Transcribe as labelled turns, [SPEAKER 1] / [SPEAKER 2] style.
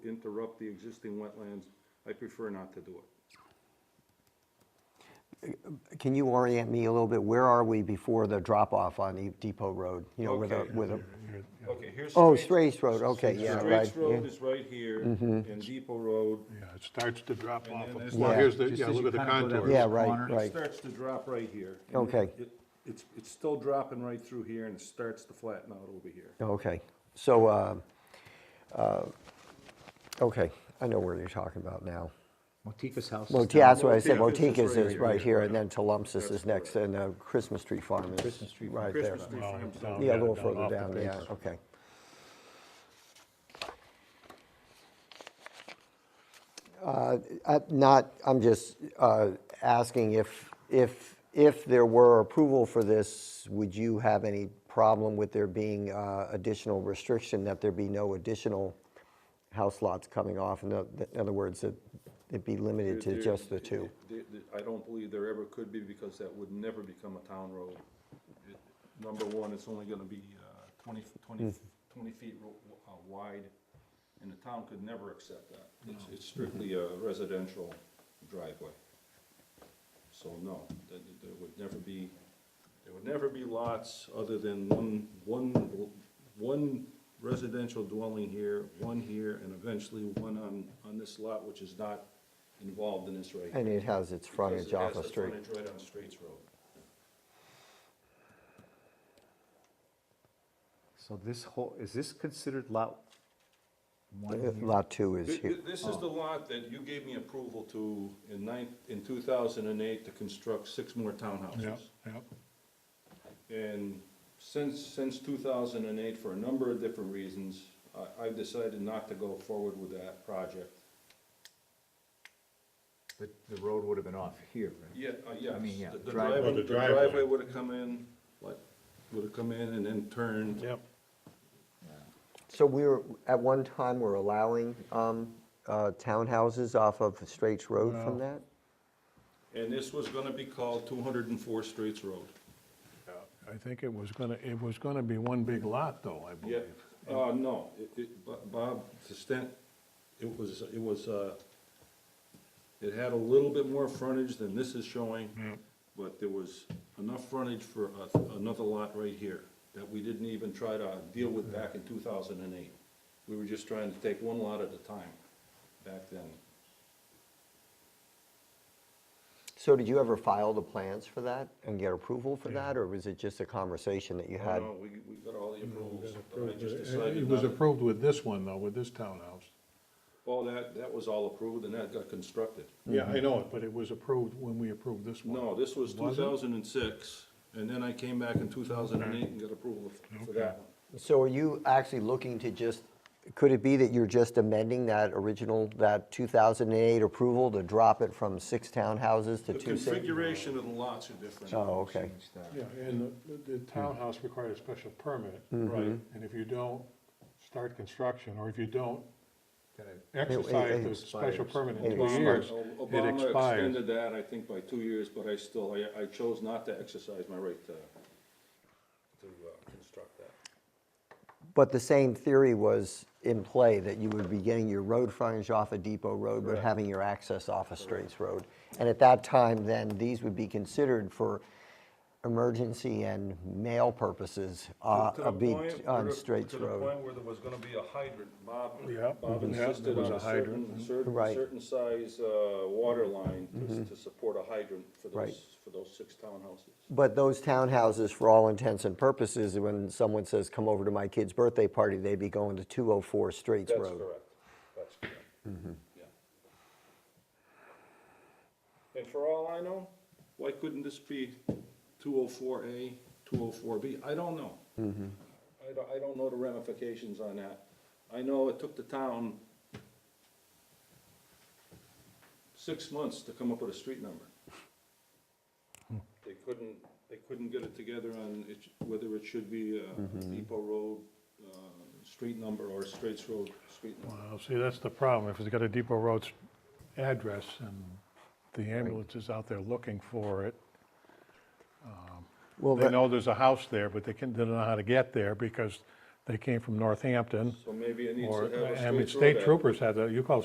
[SPEAKER 1] interrupt the existing wetlands, I prefer not to do it.
[SPEAKER 2] Can you orient me a little bit? Where are we before the drop-off on E- Depot Road? You know, with a,
[SPEAKER 1] Okay.
[SPEAKER 2] with a,
[SPEAKER 1] Okay, here's.
[SPEAKER 2] oh,
[SPEAKER 1] Straits-
[SPEAKER 2] Straits Road, okay, yeah, Mm-hmm. right.
[SPEAKER 1] Straits Road is right here, and Depot Road,
[SPEAKER 3] Yeah, it starts to drop
[SPEAKER 1] And
[SPEAKER 3] off.
[SPEAKER 1] then there's
[SPEAKER 3] Well,
[SPEAKER 2] that-
[SPEAKER 3] here's the,
[SPEAKER 4] Just
[SPEAKER 3] yeah,
[SPEAKER 4] as
[SPEAKER 3] look
[SPEAKER 4] you
[SPEAKER 3] at the
[SPEAKER 4] kinda go down
[SPEAKER 3] contours.
[SPEAKER 4] this
[SPEAKER 2] Yeah, right,
[SPEAKER 4] corner,
[SPEAKER 1] it starts to drop right here. and
[SPEAKER 2] Okay.
[SPEAKER 1] it- It's, it's still dropping right through here, and it starts to flatten out over here.
[SPEAKER 2] Yeah, Okay, so, uh, uh, okay, I know where you're talking about now.
[SPEAKER 4] Motica's house. is
[SPEAKER 2] Well,
[SPEAKER 4] down-
[SPEAKER 2] that's what I said,
[SPEAKER 1] Motikas is
[SPEAKER 2] Motikas
[SPEAKER 1] right
[SPEAKER 2] is
[SPEAKER 1] here,
[SPEAKER 2] right
[SPEAKER 1] yeah,
[SPEAKER 2] here,
[SPEAKER 1] yeah.
[SPEAKER 2] and then Tecumseh
[SPEAKER 1] That's
[SPEAKER 2] is next,
[SPEAKER 1] correct.
[SPEAKER 2] and uh, Christmas Tree Farm is
[SPEAKER 4] Christmas Tree Farm.
[SPEAKER 2] right there.
[SPEAKER 1] Christmas tree farms
[SPEAKER 3] down
[SPEAKER 1] out.
[SPEAKER 2] Yeah, a
[SPEAKER 3] Oh, Yeah,
[SPEAKER 2] little
[SPEAKER 3] down
[SPEAKER 2] further
[SPEAKER 3] off the
[SPEAKER 2] down, yeah,
[SPEAKER 3] base.
[SPEAKER 2] okay. Uh, I- Not, I'm just uh, asking if, if, if there were approval for this, would you have any problem with there being uh, additional restriction, that there be no additional house lots coming off? In oth- in other words, that it be limited to
[SPEAKER 1] There-
[SPEAKER 2] just the two?
[SPEAKER 1] there- there- I don't believe there ever could be, because that would never become a town road. It- Number one, it's only gonna be uh, 20
[SPEAKER 2] Mm.
[SPEAKER 1] 20 20 feet ro- uh, wide, and the town could never accept that. It's- It's strictly a residential driveway. So no, there, there would never be, there would never be lots other than one, one, one residential dwelling here, one here, and eventually one on, on this lot, which is not involved in this right.
[SPEAKER 2] And it has its frontage off a
[SPEAKER 1] the
[SPEAKER 2] street.
[SPEAKER 1] Frontage right on Straits Road.
[SPEAKER 4] So this whole, is this considered lot one
[SPEAKER 2] Uh,
[SPEAKER 4] here?
[SPEAKER 2] Lot two is
[SPEAKER 1] Th-
[SPEAKER 2] here.
[SPEAKER 1] th- This is the lot that you gave me approval to in nine, in two thousand and eight to construct six more
[SPEAKER 3] Yeah,
[SPEAKER 1] townhouses.
[SPEAKER 3] yeah.
[SPEAKER 1] And since, since two thousand and eight, for a number of different reasons, I, I've decided not to go forward with that project.
[SPEAKER 4] The the road would have been off here, right?
[SPEAKER 1] Yeah, uh, yes.
[SPEAKER 4] I mean, yeah,
[SPEAKER 1] The- The
[SPEAKER 4] driveway.
[SPEAKER 1] driveway, the
[SPEAKER 3] The driveway.
[SPEAKER 1] driveway would have come in, like, would have come in and then turned.
[SPEAKER 3] Yep.
[SPEAKER 2] So we were, at one time, we're allowing um, uh, townhouses off of Straits Road from that?
[SPEAKER 1] And this was gonna be called two hundred and four Straits Road.
[SPEAKER 3] I think it was gonna, it was gonna be one big lot, though, I
[SPEAKER 1] Yeah,
[SPEAKER 3] believe.
[SPEAKER 1] uh, no, it, it, Bo- Bob, to stand, it was, it was, uh, it had a little bit more frontage than this is showing, but there was enough frontage for a- another lot right here that we didn't even try to deal with
[SPEAKER 3] Mm-hmm.
[SPEAKER 1] back in two thousand and eight. We were just trying to take one lot at a time back then.
[SPEAKER 2] So did you ever file the plans for that and get approval for that, or was it just a conversation that you
[SPEAKER 1] Oh,
[SPEAKER 2] had?
[SPEAKER 1] no, we, we got all the approvals, but I just
[SPEAKER 3] It Mm-hmm. it
[SPEAKER 1] decided
[SPEAKER 3] was
[SPEAKER 1] not, to-
[SPEAKER 3] approved with this one, though, with this townhouse.
[SPEAKER 1] all that, that was all approved and that got constructed.
[SPEAKER 3] Yeah, I know it, but it was approved when we approved this one.
[SPEAKER 1] No, this was two
[SPEAKER 3] Was it?
[SPEAKER 1] thousand and six, and then I came back in two thousand and eight and got approval f- for that one.
[SPEAKER 2] So are you actually looking to just, could it be that you're just amending that original, that 2008 approval to drop it from six townhouses to
[SPEAKER 1] The
[SPEAKER 2] two? sing-
[SPEAKER 1] configuration of the lots are different.
[SPEAKER 2] Oh, okay.
[SPEAKER 4] Change that.
[SPEAKER 3] Yeah, and the- the townhouse required a special permit.
[SPEAKER 1] Right.
[SPEAKER 3] And if you don't start construction, or if you don't
[SPEAKER 4] Gotta-
[SPEAKER 3] exercise the
[SPEAKER 2] expires.
[SPEAKER 3] special permit in
[SPEAKER 2] It
[SPEAKER 3] two years,
[SPEAKER 1] Obama-
[SPEAKER 3] it
[SPEAKER 1] Obama
[SPEAKER 3] expires.
[SPEAKER 1] extended that, I think, by two years, but I still, I, I chose not to exercise my right to, to uh, construct that.
[SPEAKER 2] But the same theory was in play, that you would be getting your road frontage off of Depot Road, but having your access off of Straits Road. And at that time, then, these would be considered for emergency and mail purposes uh,
[SPEAKER 1] To the
[SPEAKER 2] of being
[SPEAKER 1] point
[SPEAKER 2] t-
[SPEAKER 1] where-
[SPEAKER 2] on Straits
[SPEAKER 1] To the
[SPEAKER 2] Road.
[SPEAKER 1] point where there was gonna be a hydrant, Bob,
[SPEAKER 3] Yeah,
[SPEAKER 1] Bob
[SPEAKER 3] mhm. Yeah, there
[SPEAKER 1] insisted
[SPEAKER 3] was
[SPEAKER 1] on
[SPEAKER 3] a
[SPEAKER 1] a certain,
[SPEAKER 3] hydrant,
[SPEAKER 1] certain,
[SPEAKER 2] Right. Mm-hmm.
[SPEAKER 1] certain size, uh, water line to, to support a hydrant for
[SPEAKER 2] Right.
[SPEAKER 1] those, for those six townhouses.
[SPEAKER 2] But those townhouses, for all intents and purposes, when someone says, come over to my kid's birthday party, they'd be going to 204 Straits
[SPEAKER 1] That's
[SPEAKER 2] Road.
[SPEAKER 1] correct, that's correct. Yeah. And for all I know, why couldn't this be two oh four A, two oh four B? I don't know. I don't, I don't know the ramifications on that. I know it took the town six months to come up with a street number. They couldn't, they couldn't get it together on it, whether it should be a depot road, uh, street number or Straits Road, street number.
[SPEAKER 3] Well, see, that's the problem. If it's got a Depot Road address and the ambulance is out there looking for it,
[SPEAKER 2] Well,
[SPEAKER 3] they
[SPEAKER 2] that-
[SPEAKER 3] know there's a house there, but they can, they don't know how to get there because They came from Northampton.
[SPEAKER 1] So maybe it needs to
[SPEAKER 3] Or,
[SPEAKER 1] have a
[SPEAKER 3] I mean,
[SPEAKER 1] straight
[SPEAKER 3] state
[SPEAKER 1] road
[SPEAKER 3] troopers had, that. you call